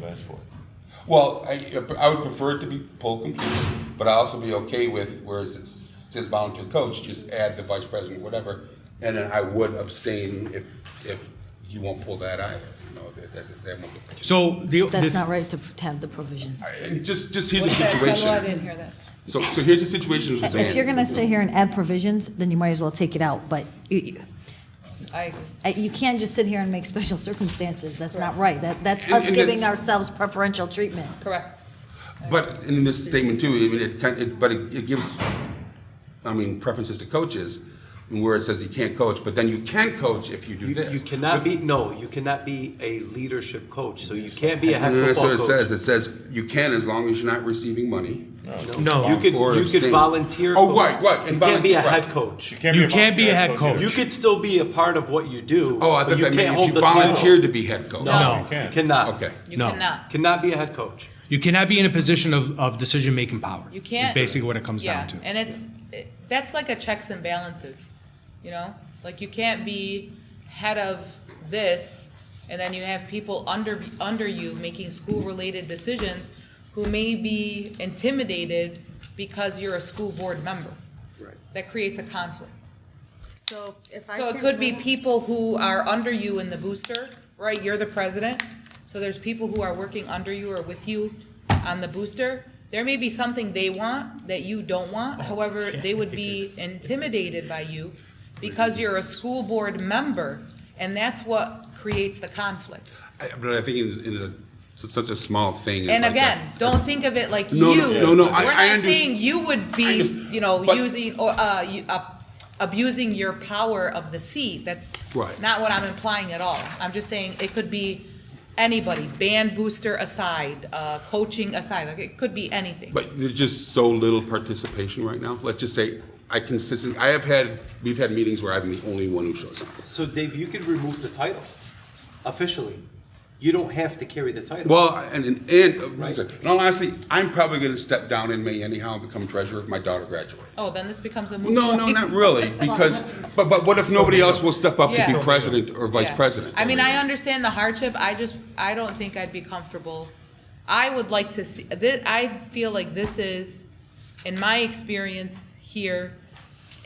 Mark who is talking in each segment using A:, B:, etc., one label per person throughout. A: charge for it. Well, I, I would prefer it to be full complete, but I also be okay with, whereas it's just volunteer coach, just add the vice president, whatever. And then I would abstain if, if you won't pull that either, you know, that, that, that won't get.
B: So the.
C: That's
B: the-
C: not right to have the provisions.
A: And just, just here's the
D: What's that? Tell me why I
A: situation.
D: didn't hear that.
A: So, so here's the situation. with
C: If you're
A: Zan.
C: gonna sit here and add provisions, then you might as well take it out, but you, you-
D: I agree.
C: uh, you can't just sit here and make special circumstances, that's not right. That, that's
A: And-
C: us
A: and
C: giving
A: that's-
C: ourselves preferential treatment.
D: Correct.
A: But in this statement too, I mean, it kind, it, but it, it gives, I mean, preferences to coaches, where it says you can't coach, but then you can coach if you do
E: You,
A: this.
E: you cannot be, no, you cannot be a leadership coach, so you can't be a head
A: And that's what
E: football
A: it says,
E: coach.
A: it says you can as long as you're not receiving money.
B: No.
E: You could,
A: Or
E: you could
A: abstain.
E: volunteer.
A: Oh,
E: coach.
A: right, right, and
E: You can't be
A: volunteer,
E: a
A: right.
E: head coach.
B: You can't be a head coach.
E: You could still be a part of what you do.
A: Oh, I
E: but
A: thought
E: you
A: that
E: can't
A: meant
E: hold
A: if you
E: the title.
A: volunteered to be head coach.
B: No.
E: No, you cannot.
A: Okay.
D: You
B: No.
D: cannot.
E: Cannot be a head coach.
B: You cannot be in a position of, of decision-making power.
D: You can't.
B: Is basically what it comes
D: yeah,
B: down to.
D: And it's, it- that's like a checks and balances, you know? Like you can't be head of this and then you have people under, under you making school-related decisions who may be intimidated because you're a school board member.
E: Right.
D: That creates a conflict.
F: So if I.
D: So it
F: can
D: could be
F: move-
D: people who are under you in the booster, right? You're the president. So there's people who are working under you or with you on the booster. There may be something they want that you don't want. However, they would be intimidated by you because you're a school board member. And that's what creates the conflict.
A: I- But I think in, in a, it's such a small thing. it's
D: And
A: like
D: again,
A: a-
D: don't think of it like you.
A: No, no, no, no, I-
D: We're
A: I
D: not
A: underst-
D: saying you would be,
A: underst-
D: you know,
A: but-
D: using, or, uh, you- uh, abusing your power of the seat. That's
A: Right.
D: not what I'm implying at all. I'm just saying it could be anybody, band booster aside, uh, coaching aside, like it could be anything.
A: But there's just so little participation right now. Let's just say, I consistent, I have had, we've had meetings where I'm the only one who shows up.
E: So Dave, you could remove the title officially. You don't have to carry the title.
A: Well, and, and, and,
E: Right.
A: and honestly, I'm probably gonna step down in May anyhow and become treasurer if my daughter graduates.
D: Oh, then this becomes a moot
A: No, no,
D: point.
A: not really, because, but, but what if nobody else will step up to
D: Yeah.
A: be president or vice
D: Yeah.
A: president?
D: I mean, I understand the hardship, I just, I don't think I'd be comfortable. I would like to see, thi- I feel like this is, in my experience here,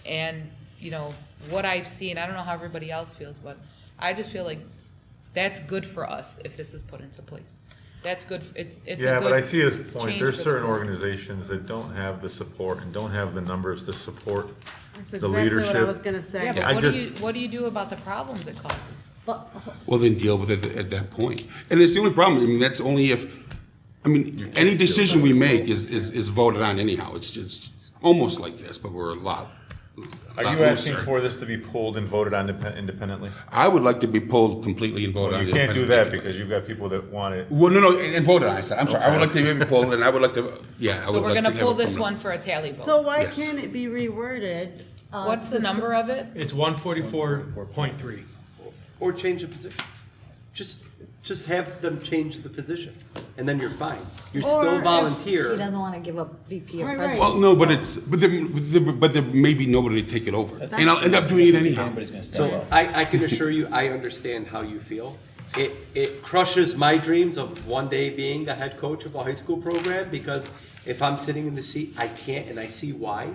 D: and, you know, what I've seen, I don't know how everybody else feels, but I just feel like that's good for us if this is put into place. That's good, f- it's, it's a
G: Yeah, but I
D: good
G: see his
D: change
G: point. There's
D: for-
G: certain organizations that don't have the support and don't have the numbers to support
F: That's
G: the
F: exactly what I
G: leadership.
F: was gonna
D: Yeah,
F: say.
G: I
D: but what do
G: just-
D: you, what do you do about the problems it causes?
F: But-
A: Well, then deal with it at that point. And it's the only problem, I mean, that's only if, I mean, any decision we make is, is, is voted on anyhow. It's just, it's almost like this, but we're a lot.
G: Are
A: lot
G: you asking
A: looser.
G: for this to be pulled and voted on depen- independently?
A: I would like to be pulled completely and voted on.
G: You can't do that
A: independently.
G: because you've got people that want it.
A: Well, no, no, and and voted on, I said, I'm sorry, I would like to be pulled and I would like to, yeah. I
D: So
A: would
D: we're
A: like to
D: gonna
A: have
D: pull
A: it
D: this
A: from the-
D: one for a tally vote.
F: So why
A: Yes.
F: can't it be reworded? uh,
D: What's the
F: to-
D: number of it?
B: It's one forty-four point three.
E: Or change the position. Just, just have them change the position and then you're fine. You're
F: Or
E: still
F: if
E: volunteer.
C: He doesn't wanna give up VP or
F: Right,
C: president.
F: right.
A: Well, no, but it's, but there, but there- but there may be nobody to take it over. And I'll end up doing it anyhow.
H: Everybody's gonna step
E: So
H: up.
E: I, I can assure you, I understand how you feel. It, it crushes my dreams of one day being the head coach of a high school program because if I'm sitting in the seat, I can't, and I see why.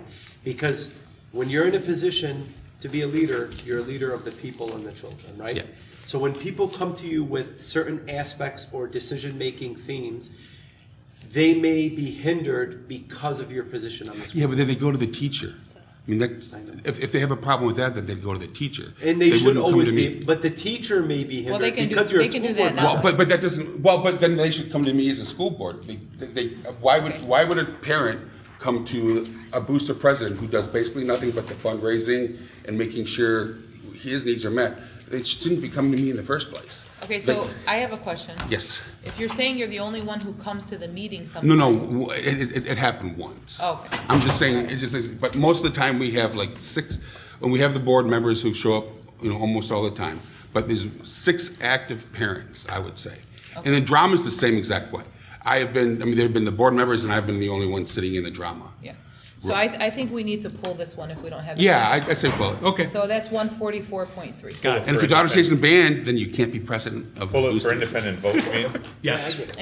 E: Because when you're in a position to be a leader, you're a leader of the people and the children,
A: Yeah.
E: right? So when people come to you with certain aspects or decision-making themes, they may be hindered because of your position on the school.
A: Yeah, but then they go to the teacher. I mean, that's, if, if they have a problem with that, then they'd go to the teacher.
E: And they should
A: wouldn't come
E: always
A: to
E: be,
A: me.
E: but the teacher may be
D: Well, they
E: hindered
D: can do,
E: because you're a
D: they can
E: school
D: do
E: board
D: that
E: member.
D: now.
A: Well, but, but that doesn't, well, but then they should come to me as a school board. They, they, why would, why would a parent come to a booster president who does basically nothing but the fundraising and making sure his needs are met? They shouldn't be coming to me in the first place.
D: Okay,
A: They-
D: so I have a question.
A: Yes.
D: If you're saying you're the only one who comes to the meeting sometimes.
A: No, no, it, it, it happened once.
D: Oh, Okay.
A: I'm just saying, it just is, but most of the time, we have like six, when we have the board members who show up, you know, almost all the time, but there's six active parents, I would say. And the drama's the same exact way. I have been, I mean, there have been the board members, and I've been the only one sitting in the drama.
D: Yeah. So I, I think we need to pull this one if we don't have. it.
A: Yeah, I, I say, well,
B: Okay.
D: So that's one forty-four point three.
B: Got it.
A: and if your daughter's chasing a band, then you can't be president of.
G: Pull it for
A: Boosters.
G: independent vote, you mean?
B: Yes.